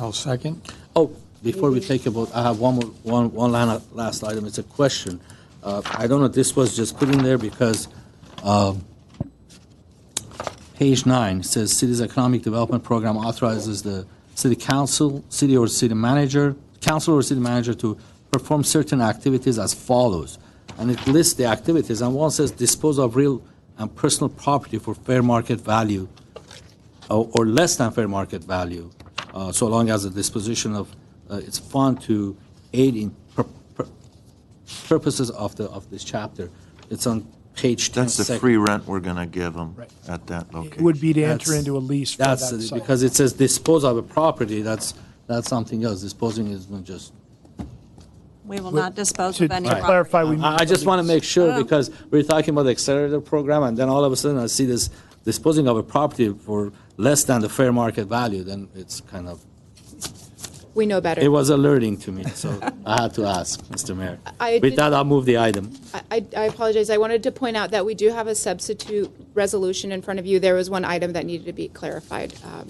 I'll second. Oh, before we take a vote, I have one more, one, one lana- last item, it's a question. Uh, I don't know, if this was just put in there because, um, page nine says city's economic development program authorizes the city council, city or city manager, council or city manager to perform certain activities as follows. And it lists the activities, and one says dispose of real and personal property for fair market value or or less than fair market value, uh, so long as the disposition of uh, its fund to aid in pur- pur- purposes of the, of this chapter. It's on page 10. That's the sec- free rent we're going to give them Right. at that It would location. be to enter That's- into a lease for that That's, the- site. because it says dispose of a property, that's, that's something else. Disposing is not just. We will But not dispose To of any to property. clarify, we. I I just want to make Um, sure, because we're talking about the accelerator program, and then all of a sudden I see this disposing of a property for less than the fair market value, then it's kind of, We know better. it was alerting to me, so I had to ask, Mr. Mayor. I With did- that, I'll move the item. I, I apologize. I wanted to point out that we do have a substitute resolution in front of you. There was one item that needed to be clarified. um,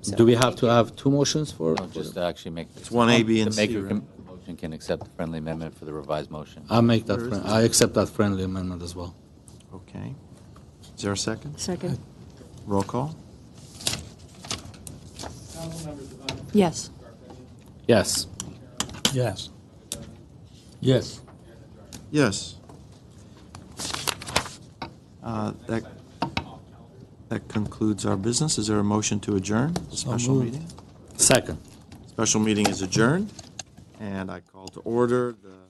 so Do we have thank to you. have two motions for? No, just to actually make. It's one A, B, and C, The maker right? can, the motion can accept the friendly amendment for the revised motion. I'll make that, friend- I accept that friendly amendment as well. Okay. Is there a second? Second. Roll call? Yes. Yes. Yes. Yes. Yes. Uh, That that concludes our business. Is there a motion to adjourn the special moved. meeting? Second. Special meeting is adjourned, and I call to order the